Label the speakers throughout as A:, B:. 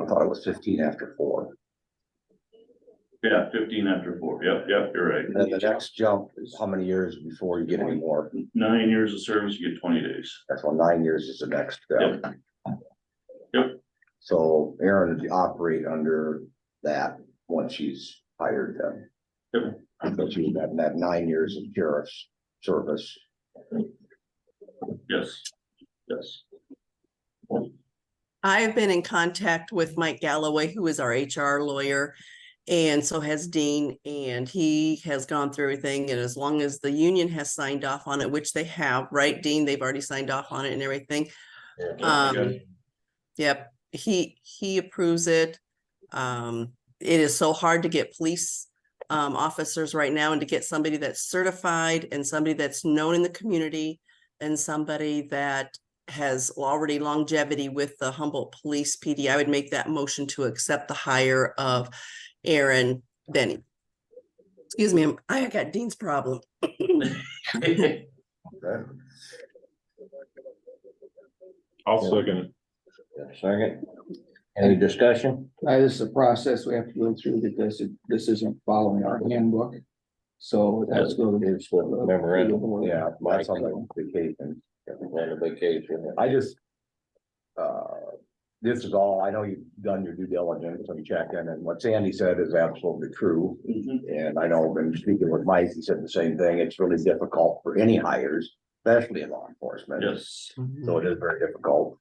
A: I thought it was fifteen after four.
B: Yeah, fifteen after four. Yep, yep, you're right.
A: And then the next jump is how many years before you get any more?
B: Nine years of service, you get twenty days.
A: That's why nine years is the next. uh,
B: Yep.
A: So Aaron would operate under that once she's hired them. But she would have that nine years of sheriff's service.
B: Yes, yes.
C: I've been in contact with Mike Galloway, who is our HR lawyer, and so has Dean, and he has gone through everything, and as long as the union has signed off on it, which they have, right, Dean, they've already signed off on it and everything. Um, yep, he, he approves it. Um, it is so hard to get police um officers right now and to get somebody that's certified and somebody that's known in the community and somebody that has already longevity with the Humboldt Police PD. I would make that motion to accept the hire of Aaron Benny. Excuse me, I'm- I got Dean's problem.
A: Okay.
D: I'll second
E: Second. Any discussion?
F: Uh, this is a process we have to go through because it- this isn't following our handbook. So that's going to
E: It's the memorandum.
A: Yeah, my son's on vacation.
E: On the vacation.
A: I just. Uh, this is all, I know you've done your due diligence and checking, and what Sandy said is absolutely true.
B: Mm-hmm.
A: And I know when speaking with Mike, he said the same thing. It's really difficult for any hires, especially in law enforcement.
B: Yes.
A: So it is very difficult.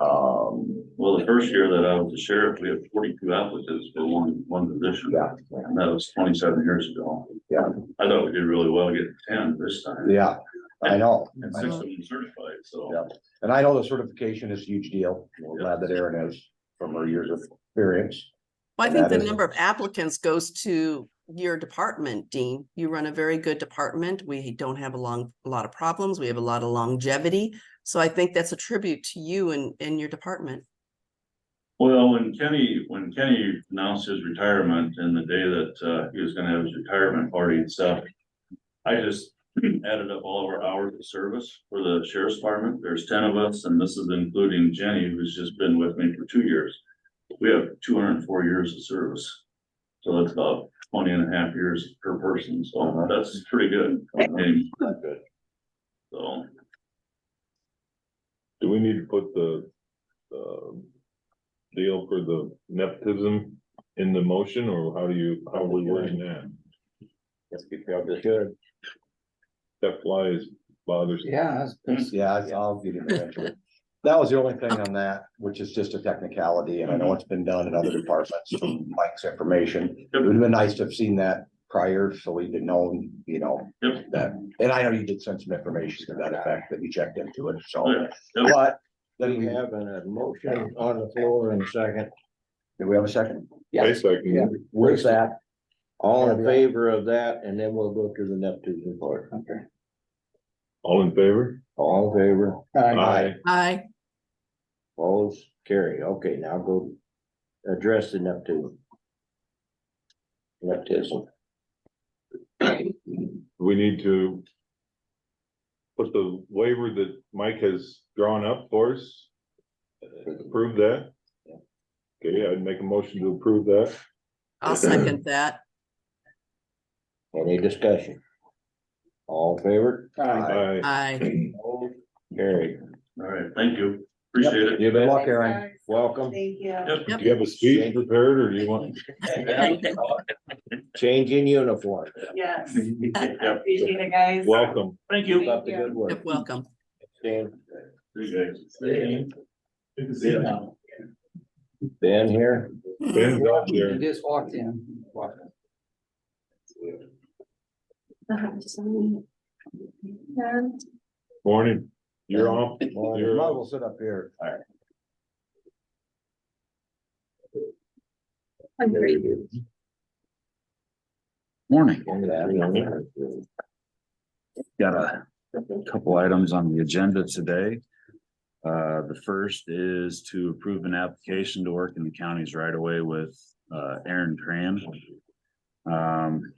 A: Um,
B: Well, the first year that I was the sheriff, we had forty-two applicants for one, one position.
A: yeah,
B: And that was twenty-seven years ago.
A: Yeah.
B: I thought we did really well getting ten this time.
A: yeah, I know.
B: And six of them certified, so.
A: Yeah. And I know the certification is a huge deal. We're glad that Erin has from her years of experience.
C: Well, I think
A: That
C: the
A: is-
C: number of applicants goes to your department, Dean. You run a very good department. We don't have a long, a lot of problems. We have a lot of longevity. So I think that's a tribute to you and, and your department.
B: Well, when Kenny, when Kenny announced his retirement and the day that uh he was gonna have his retirement party and stuff. I just added up all of our hours of service for the sheriff's department. There's ten of us, and this is including Jenny, who's just been with me for two years. We have two hundred and four years of service. So that's about 20 and a half years per person, so that's pretty good. And- So,
D: it. Do we need to put the, um deal for the nepotism in the motion, or how do you, how are we wording that?
E: Let's be proud to share.
D: That flies bothers.
F: Yeah, that's- that's-
A: Yeah, I'll- I'll get it eventually. That was the only thing on that, which is just a technicality, and I
B: Mm-hmm.
A: know it's been done in other departments, from Mike's information. It would have been nice to have seen that prior, so we'd have known, you know,
B: Yep.
A: that, and I know you did send some information to that effect that you checked into it, so.
B: Yeah, yep.
A: But, then
E: Then we
A: we have,
E: have a motion on the floor and second.
A: do we have a second?
D: I
F: yeah,
D: second,
E: Yeah.
A: Where's that?
E: All in favor of that, and then we'll go to the Neptune part.
F: okay.
D: all in favor?
E: All in favor,
F: Uh,
A: Aye.
C: I,
E: opposed, carry. Okay, now go address the Neptune. Neptism.
D: We need to put the waiver that Mike has drawn up for us. Approve that? Okay, I'd make a motion to approve that.
C: I'll second that.
E: Any discussion? All in favor?
F: uh,
D: Aye.
C: I,
E: Opposed, Carry.
B: all right, thank you. Appreciate it.
E: You
A: Good
E: bet.
A: luck, Aaron.
E: Welcome.
B: Yep.
D: Do you have a speech prepared, or do you want?
E: Change in uniform.
G: Yes,
B: Yep.
G: appreciate it, guys.
D: Welcome.
B: Thank
E: Keep
B: you.
E: up the good work.
C: welcome.
E: Dan,
B: You guys.
E: Ben here.
D: Ben's out
F: You
D: there.
F: just walked in.
G: Um,
D: Morning. You're off.
A: Well, you
D: You're
A: might as
D: off.
A: well sit up here.
G: I'm great.
H: Morning.
E: Look at that.
H: Got a couple items on the agenda today. Uh, the first is to approve an application to work in the counties right away with, uh, Aaron Tran. Um,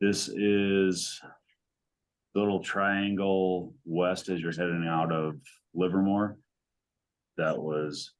H: this is the little triangle west as you're heading out of Livermore. That was